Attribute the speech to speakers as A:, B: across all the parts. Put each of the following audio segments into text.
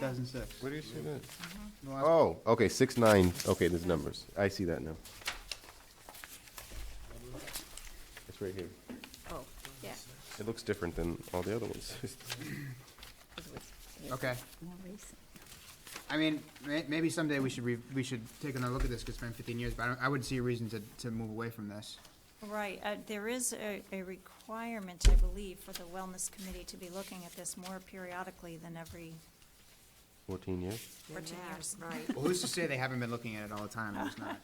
A: 2006.
B: Where do you see that?
A: No, I-
B: Oh, okay, six, nine, okay, there's numbers. I see that now. It's right here.
C: Oh, yeah.
B: It looks different than all the other ones.
C: 'cause it was-
D: Oh.
C: it's
A: Okay.
C: More recent.
A: I mean, may, maybe someday we should, re- we should take another look at this, because it's been 15 years, but I, don't- I wouldn't see a reason to, to move away from this.
E: Right, uh, there is a, a requirement, I believe, for the wellness committee to be looking at this more periodically than every
B: Fourteen years?
C: Than
E: two
C: that,
E: years.
C: Right.
A: Well, who's to say they haven't been looking at it all the time, and it's not?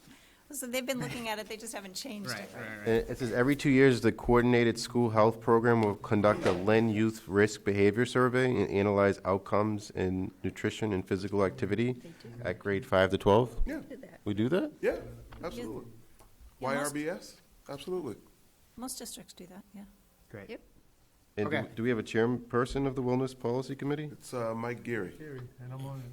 E: So they've been looking at it, they just haven't changed
A: Right,
E: it.
A: right,
B: And
A: right.
B: It says every two years, the coordinated school health program will conduct a Len Youth Risk Behavior Survey and analyze outcomes in nutrition and physical activity at grade five to twelve.
D: Yeah,
C: Did that.
B: We do that?
D: yeah, absolutely.
E: Yeah, most-
D: YRBS, absolutely.
E: Most districts do that, yeah.
A: Great.
C: Yep.
B: And do-
A: Okay.
B: do we have a chairperson of the Wellness Policy Committee?
D: It's uh, Mike Geary.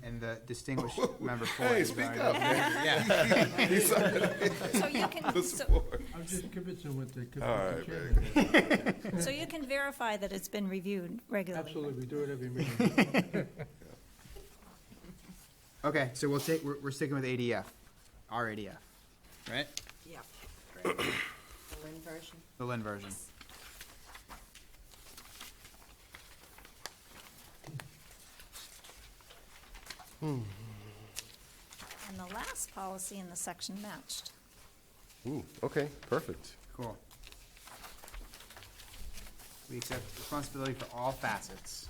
A: And the distinguished member for
D: Hey, speak up, man.
E: So you can, so,
D: Support.
F: I'm just convincing with the,
D: All right,
F: with the
D: man.
F: chairman.
E: so you can verify that it's been reviewed regularly.
F: Absolutely, we do it every meeting.
A: Okay, so we'll take, we're, we're sticking with ADF, our ADF, right?
C: Yeah. The Lynn version.
A: The Lynn version.
E: And the last policy in the section matched.
B: Ooh, okay, perfect.
A: Cool. We accept responsibility for all facets.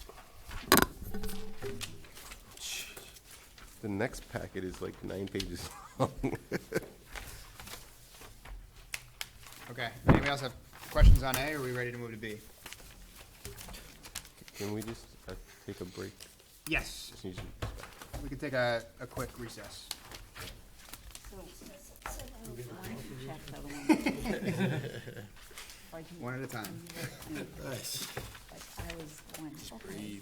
B: The next packet is like nine pages long.
A: Okay, anybody else have questions on A, or are we ready to move to B?
B: Can we just uh, take a break?
A: Yes,
B: Just need to-
A: we can take a, a quick recess.
C: Check the one. Like,
A: One at a time.
C: like I was going, okay.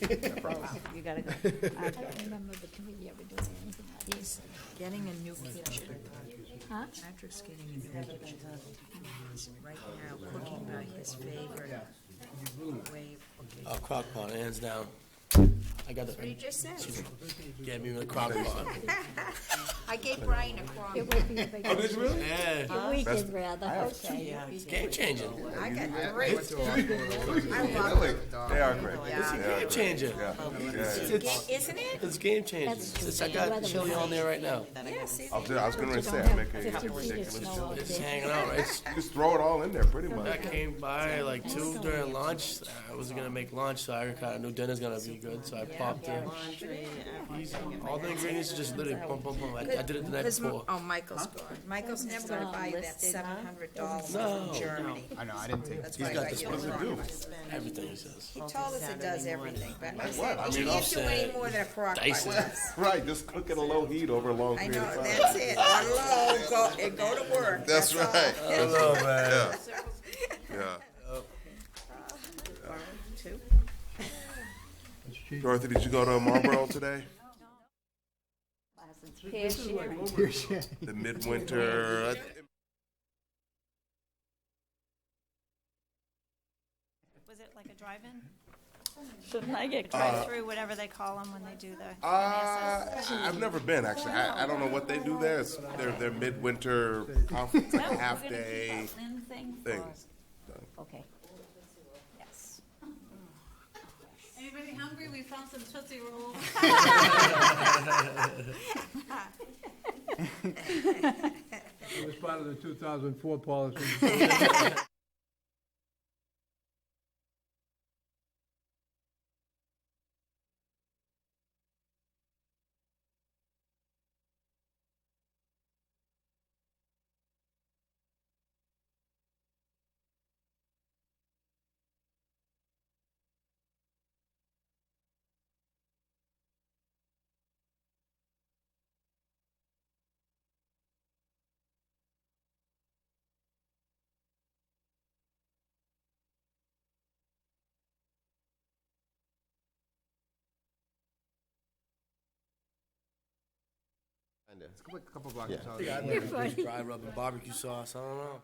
C: Take a break. Wow, You gotta go. I don't remember the committee ever doing anything like this.
G: Getting a new kitchen. Patrick's getting a new kitchen. Right now, cooking by his favorite way.
H: Oh, crock pot, hands down. I got the,
G: just said.
H: get me with a crock pot.
G: I gave Brian a crock.
C: It would be a big,
D: Oh, did you really?
H: Yeah,
C: a weekend rather, okay.
H: it's game changer.
G: I got
A: I went
G: great.
A: to a law school.
G: I
D: They're
G: love
D: like- They are great.
G: Oh, Yeah.
D: They are
H: Game
D: great.
H: changer.
D: Yeah, yeah.
G: it. Ga- Isn't it?
H: It's game changer. It's- I got chili on there right now.
G: Yes, it
D: I was, I was gonna say, I make a ridiculous joke.
H: It's hanging out. It's,
D: Just throw it all in there, pretty
H: I
D: much.
H: came by like two during lunch. I wasn't gonna make lunch, so I kinda knew dinner's gonna be good, so I popped in. Easy. All the ingredients are just literally pump, pump, pump. I I did it the night
G: Because,
H: before.
G: oh, Michael's gone. Michael's never gonna buy you that seven hundred dollars from Germany.
A: I know, I didn't take.
G: That's why I got you the crock. pot.
H: Everything he says.
G: He told us it does everything, but I said,
D: what?
G: you
H: I mean,
G: can't do any
H: offset,
G: more than a crock pot
H: dice it.
G: does.
D: Right, just cook at a low heat over a long
G: I
D: period
G: know,
D: of time.
G: that's it. On low, go, and go to work.
D: That's
G: all.
D: right.
H: Hello, man.
D: Yeah.
G: One, two.
F: It's cheap.
D: Dorothy, did you go to Marlboro today? The midwinter, I-
E: Was it like a drive-in? Shouldn't I get drive-through,
A: Uh,
E: whatever they call them when they do the,
D: Uh, I've never been actually. I, I don't know what they do there. It's their their midwinter conference, like a half day thing.
C: Okay. Yes.
I: Anybody hungry? We found some Tootsie Rolls.
F: It was part of the 2004 policy.
A: It's a couple- couple blocks. is
B: Yeah.
A: all.
H: Dry rub and barbecue sauce, I don't know.